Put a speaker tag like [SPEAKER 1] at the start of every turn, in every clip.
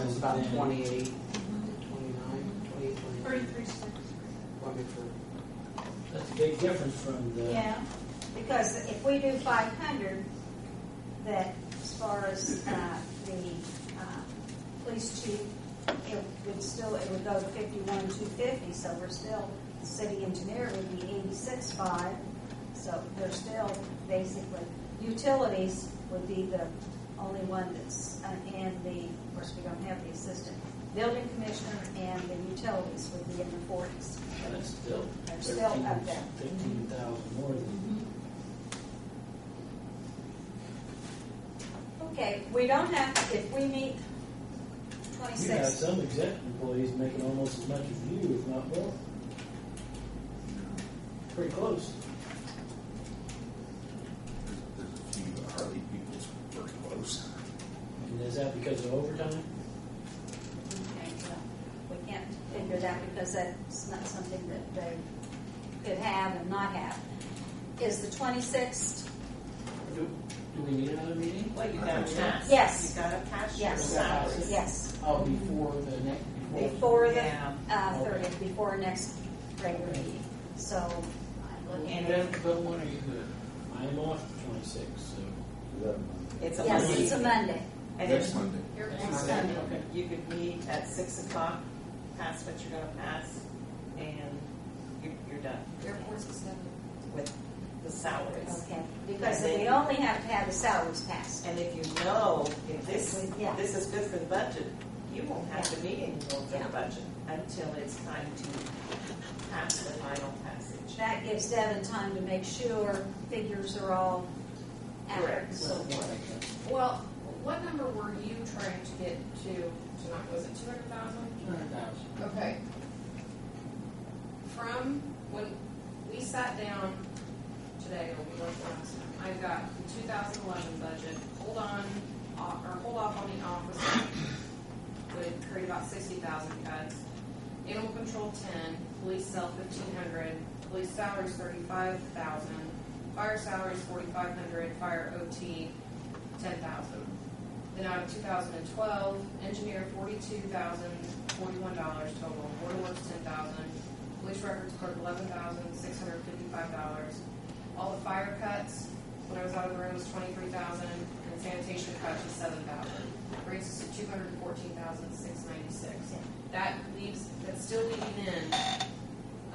[SPEAKER 1] about
[SPEAKER 2] Yeah.
[SPEAKER 1] 28, 29, 28, 29.
[SPEAKER 3] Thirty-three cents.
[SPEAKER 1] Let me through.
[SPEAKER 2] That's a big difference from the,
[SPEAKER 3] Yeah, because if we do five hundred, that as far as, uh, the, uh, police chief, it would still, it would go fifty-one, two fifty, so we're still, city engineer would be eighty-six, five. So they're still basically, utilities would be the only one that's, uh, and the, of course, we don't have the assistant building commissioner and the utilities would be in the forties.
[SPEAKER 2] that's still
[SPEAKER 3] They're still up there.
[SPEAKER 2] fifteen thousand more than.
[SPEAKER 3] Okay, we don't have, to if we meet
[SPEAKER 2] You have
[SPEAKER 3] twenty-six,
[SPEAKER 2] some executive employees making almost as much as you, if not more. Pretty close.
[SPEAKER 4] There's there's a few Harley people that's very close.
[SPEAKER 2] And is that because of overtime?
[SPEAKER 3] okay, well, we can't figure that because that's not something that they could have and not have. Is the twenty-sixth,
[SPEAKER 2] Do, do we need another meeting?
[SPEAKER 5] Well, you got a tax.
[SPEAKER 3] Yes.
[SPEAKER 5] You got a tax your
[SPEAKER 3] Yes.
[SPEAKER 5] salary.
[SPEAKER 3] yes,
[SPEAKER 2] Oh, before the next, before.
[SPEAKER 3] before the,
[SPEAKER 5] Yeah.
[SPEAKER 3] uh, thirtieth, before our next regular meeting. So I'm looking
[SPEAKER 2] And
[SPEAKER 3] at,
[SPEAKER 2] then, but when are you good? I am off the twenty-sixth, so.
[SPEAKER 5] It's a
[SPEAKER 3] yes, it's a
[SPEAKER 5] Monday.
[SPEAKER 3] Monday.
[SPEAKER 5] And
[SPEAKER 4] Next
[SPEAKER 5] then
[SPEAKER 4] Monday.
[SPEAKER 3] Your
[SPEAKER 2] That's
[SPEAKER 3] next
[SPEAKER 2] Monday.
[SPEAKER 3] Monday.
[SPEAKER 2] Okay.
[SPEAKER 5] you could meet at six o'clock, pass what you're gonna pass, and you're, you're done
[SPEAKER 3] Airport's extended.
[SPEAKER 5] with the salaries.
[SPEAKER 3] Okay, because they only have to have the salaries passed.
[SPEAKER 5] And if you know, if this,
[SPEAKER 3] Yeah.
[SPEAKER 5] this is good for the budget, you won't have to meet anymore for
[SPEAKER 3] Yeah.
[SPEAKER 5] the budget until it's time to pass the final passage.
[SPEAKER 3] That gives Devin time to make sure figures are all accurate.
[SPEAKER 5] Correct.
[SPEAKER 3] So forth.
[SPEAKER 6] Well, what number were you trying to get to tonight? Was it two hundred thousand?
[SPEAKER 2] Two hundred thousand.
[SPEAKER 6] Okay. From when we sat down today, or we worked last time, I've got the two thousand eleven budget, hold on, off- or hold off on the officer. Would create about sixty thousand cuts. Animal control ten, police cell fifteen hundred, police salaries thirty-five thousand, fire salaries forty-five hundred, fire OT ten thousand. Then out of two thousand and twelve, engineer forty-two thousand, forty-one dollars total, water works ten thousand, police records clerk eleven thousand, six hundred fifty-five dollars. All the fire cuts, when I was out of the room, was twenty-three thousand, and sanitation cuts was seven thousand. Brings us to two hundred fourteen thousand, six ninety-six. That leaves, that's still leaving in,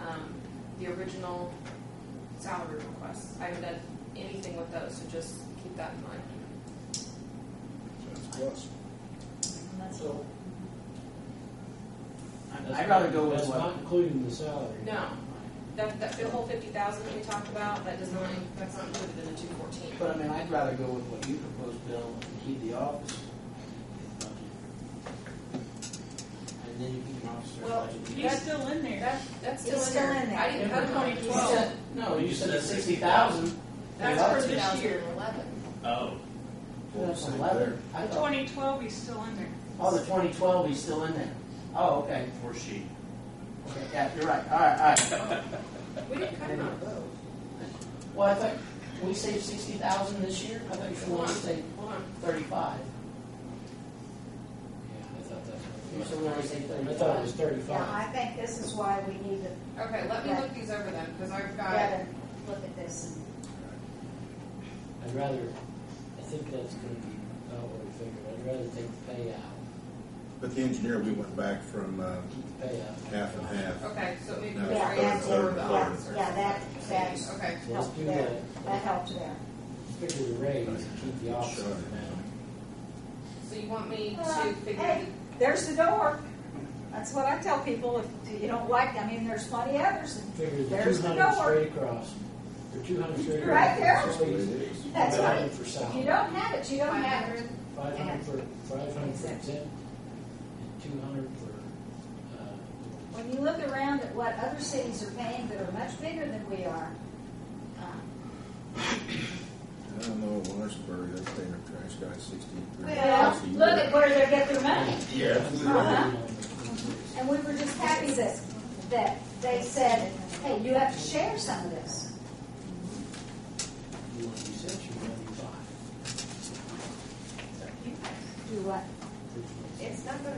[SPEAKER 6] um, the original salary requests. I haven't done anything with those, so just keep that in mind.
[SPEAKER 4] That's close.
[SPEAKER 2] So.
[SPEAKER 7] I'd rather go with
[SPEAKER 2] That's
[SPEAKER 7] what-
[SPEAKER 2] not including the salary.
[SPEAKER 6] No, that, that, the whole fifty thousand that we talked about, that does not, that's not included in the two fourteen.
[SPEAKER 7] But I mean, I'd rather go with what you proposed, Bill, and keep the office budget. And then you keep an officer
[SPEAKER 6] Well,
[SPEAKER 7] budget.
[SPEAKER 6] you- That's
[SPEAKER 5] still in there.
[SPEAKER 6] That, that's still
[SPEAKER 3] It's
[SPEAKER 6] in
[SPEAKER 3] still
[SPEAKER 6] there.
[SPEAKER 3] in there.
[SPEAKER 6] I didn't cut twenty
[SPEAKER 7] You
[SPEAKER 6] twelve,
[SPEAKER 7] said- No, you said sixty thousand.
[SPEAKER 6] that's for this year. Eleven.
[SPEAKER 7] Oh.
[SPEAKER 4] Well,
[SPEAKER 7] That's
[SPEAKER 4] same
[SPEAKER 7] eleven. I thought,
[SPEAKER 5] Twenty twelve, he's still in there.
[SPEAKER 7] oh, the twenty twelve, he's still in there. Oh, okay.
[SPEAKER 4] Or she.
[SPEAKER 7] Okay, yeah, you're right. All right, all right.
[SPEAKER 6] We didn't cut them out.
[SPEAKER 7] Well, I thought, we saved sixty thousand this year? I thought you wanted to save
[SPEAKER 6] Hold on,
[SPEAKER 7] thirty-five.
[SPEAKER 2] Yeah, I thought
[SPEAKER 7] You
[SPEAKER 2] that's.
[SPEAKER 7] said we already saved
[SPEAKER 2] I thought it
[SPEAKER 7] thirty-five.
[SPEAKER 2] was
[SPEAKER 3] Yeah,
[SPEAKER 2] thirty-five.
[SPEAKER 3] I think this is why we need to
[SPEAKER 6] okay, let me look these over then, because I've got,
[SPEAKER 3] Devin look at this and
[SPEAKER 2] I'd rather, I think that's gonna be about what we figured. I'd rather take the payout,
[SPEAKER 4] But the engineer, we went back from uh,
[SPEAKER 2] keep the payout.
[SPEAKER 4] half and half.
[SPEAKER 6] okay, so maybe
[SPEAKER 4] No,
[SPEAKER 6] we
[SPEAKER 3] Yeah,
[SPEAKER 6] raised
[SPEAKER 3] that's
[SPEAKER 6] over
[SPEAKER 4] it.
[SPEAKER 6] the
[SPEAKER 4] Yeah,
[SPEAKER 6] officer.
[SPEAKER 3] yeah, that- that's-
[SPEAKER 6] Okay,
[SPEAKER 2] So let's
[SPEAKER 3] help
[SPEAKER 2] do
[SPEAKER 3] there.
[SPEAKER 2] that.
[SPEAKER 3] That helped there.
[SPEAKER 2] Figure the raise and keep the officer
[SPEAKER 4] Sure.
[SPEAKER 2] down.
[SPEAKER 6] so you want me
[SPEAKER 3] Uh,
[SPEAKER 6] to figure
[SPEAKER 3] hey. There's the door. That's what I tell people, if you don't like, I mean, there's plenty others. and
[SPEAKER 2] Figure the
[SPEAKER 3] There's
[SPEAKER 2] two
[SPEAKER 3] the
[SPEAKER 2] hundred
[SPEAKER 3] door.
[SPEAKER 2] straight across, or two hundred straight.
[SPEAKER 3] Right there.
[SPEAKER 2] Oh,
[SPEAKER 4] That's what it is.
[SPEAKER 3] That's
[SPEAKER 2] Five
[SPEAKER 3] right.
[SPEAKER 2] hundred for
[SPEAKER 3] If you
[SPEAKER 2] salary,
[SPEAKER 3] don't have it, you
[SPEAKER 6] the
[SPEAKER 3] don't
[SPEAKER 6] five
[SPEAKER 3] have
[SPEAKER 6] hundred?
[SPEAKER 3] it.
[SPEAKER 2] five hundred for, five hundred for
[SPEAKER 3] Exactly.
[SPEAKER 2] exempt, and two hundred for, uh,
[SPEAKER 3] When you look around at what other cities are paying that are much bigger than we are, um,
[SPEAKER 4] I don't know, Lawrenceburg, that's their trash guy, sixteen thirty.
[SPEAKER 3] Well, look at where they get their money.
[SPEAKER 4] Yeah.
[SPEAKER 3] Uh-huh. And we were just happy that, that they said, hey, you have to share some of this.
[SPEAKER 2] You want to do six, you want to do five.
[SPEAKER 3] Do what?
[SPEAKER 2] Which one's-
[SPEAKER 5] It's not gonna